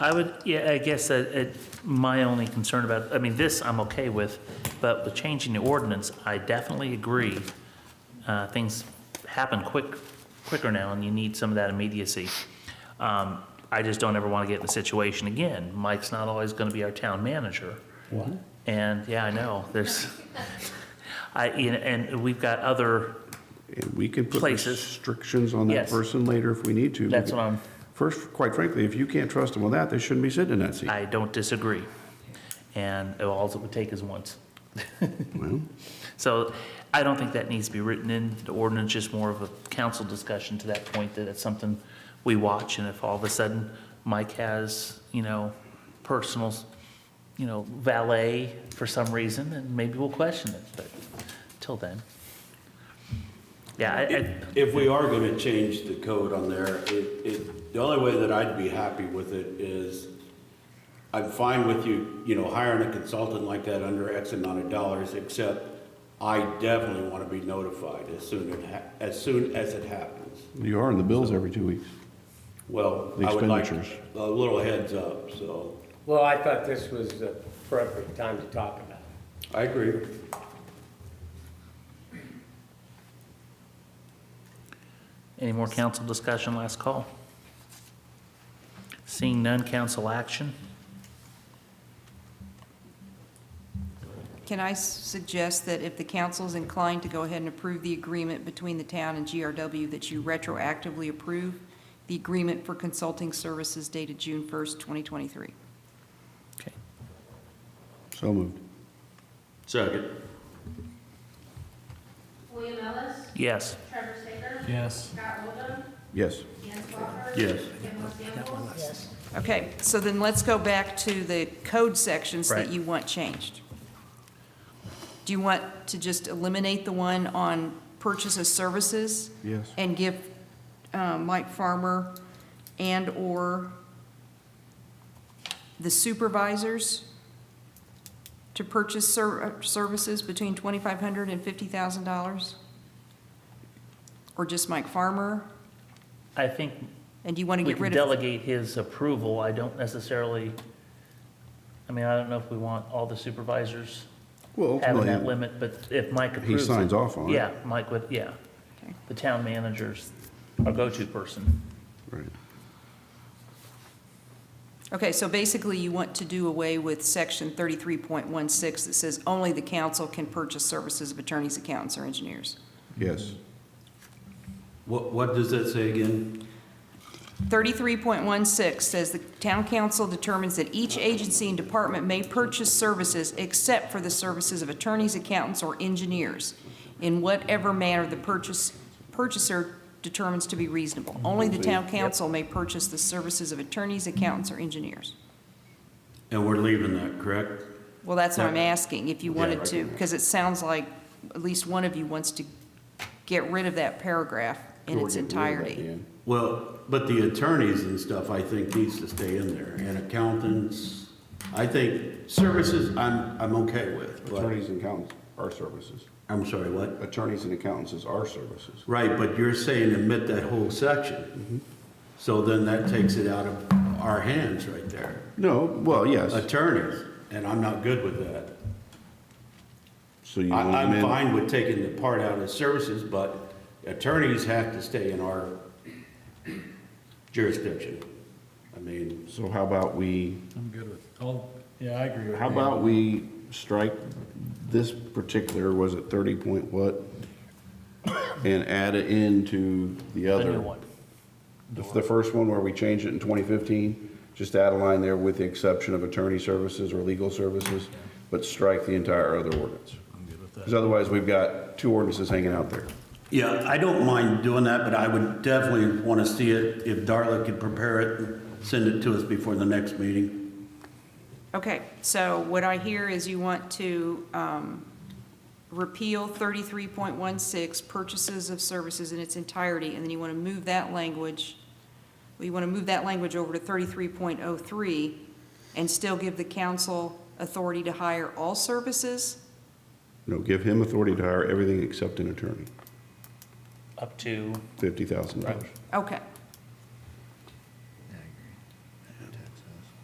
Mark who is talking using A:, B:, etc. A: I would, yeah, I guess that, it- my only concern about, I mean, this I'm okay with, but with changing the ordinance, I definitely agree. Uh, Things happen quick, quicker now, and you need some of that immediacy. Um, I just don't ever want to get in the situation again. Mike's not always going to be our town manager.
B: What?
A: And, yeah, I know, there's, I, you know, and we've got other,
B: And we can put
A: Places.
B: restrictions on that
A: Yes.
B: person later if we need to.
A: That's what I'm-
B: First, quite frankly, if you can't trust them with that, they shouldn't be sitting in that seat.
A: I don't disagree. And all it would take is once.
B: Well,
A: So I don't think that needs to be written in the ordinance, just more of a council discussion to that point, that it's something we watch, and if all of a sudden Mike has, you know, personal, you know, valet for some reason, then maybe we'll question it, but till then. Yeah, I, I,
C: If we are gonna change the code on there, it, it, the only way that I'd be happy with it is, I'm fine with you, you know, hiring a consultant like that under X amount of dollars, except I definitely wanna be notified as soon it ha- as soon as it happens.
B: You are in the bills every two weeks.
C: Well,
B: The
C: I would like
B: expenditures.
C: a little heads up, so.
D: Well, I thought this was the appropriate time to talk about it.
C: I agree.
A: any more council discussion, last call? Seeing none, council action?
E: Can I s- suggest that if the council is inclined to go ahead and approve the agreement between the town and GRW, that you retroactively approve the agreement for consulting services dated June 1st, 2023?
A: Okay.
B: So moved.
C: Second.
F: William Ellis.
A: Yes,
F: Trevor Saker. Yes. Scott Oldham.
B: Yes.
F: Dan Swafford.
C: Yes.
F: Kim Campbell.
E: Okay, so then let's go back to the code sections
A: Right.
E: that you want changed. Do you want to just eliminate the one on purchase of services?
B: Yes.
E: And give uh, Mike Farmer and/or the supervisors to purchase ser- uh, services between $2,500 and $50,000? Or just Mike Farmer?
A: I think
E: And do you want to
A: we
E: get
A: can
E: rid of?
A: delegate his approval, I don't necessarily, I mean, I don't know if we want all the supervisors
B: Well,
A: having that
B: ultimately,
A: limit, but if Mike approves it.
B: signs off on it.
A: Yeah, Mike would, yeah.
E: Okay.
A: The town manager's our go-to person.
B: right.
E: Okay, so basically you want to do away with section 33.16 that says only the council can purchase services of attorneys, accountants, or engineers.
B: yes.
C: What, what does that say again?
E: 33.16 says the town council determines that each agency and department may purchase services except for the services of attorneys, accountants, or engineers in whatever manner the purchase, purchaser determines to be reasonable. Only the town council may purchase the services of attorneys, accountants, or engineers.
C: And we're leaving that, correct?
E: Well, that's what I'm asking, if you
C: Yeah,
E: wanted
C: I
E: to, because it sounds like at least one of you wants to get rid of that paragraph in its entirety.
C: Well, but the attorneys and stuff, I think, needs to stay in there, and accountants, I think, services, I'm, I'm okay with, but,
B: Attorneys and accountants are services.
C: I'm sorry, what?
B: Attorneys and accountants is our services.
C: Right, but you're saying omit that whole section, so then that takes it out of our hands right there.
B: No, well, yes.
C: Attorneys, and I'm not good with that.
B: So you
C: I,
B: want
C: I'm
B: them in,
C: fine with taking the part out of services, but attorneys have to stay in our jurisdiction. I mean,
B: so how about we,
G: I'm good with, oh, yeah, I agree with
B: how
G: you.
B: about we strike this particular, was it thirty point what? And add it into the
A: The
B: other.
A: new one.
B: The the first one where we changed it in 2015, just add a line there with the exception of attorney services or legal services, but strike the entire other ordinance. Because otherwise, we've got two ordinances hanging out there.
C: yeah, I don't mind doing that, but I would definitely want to see it, if Darla could prepare it, and send it to us before the next meeting.
E: Okay, so what I hear is you want to um, repeal 33.16, purchases of services in its entirety, and then you want to move that language, well, you want to move that language over to 33.03 and still give the council authority to hire all services?
B: No, give him authority to hire everything except an attorney,
A: Up to,
B: $50,000.
E: Okay,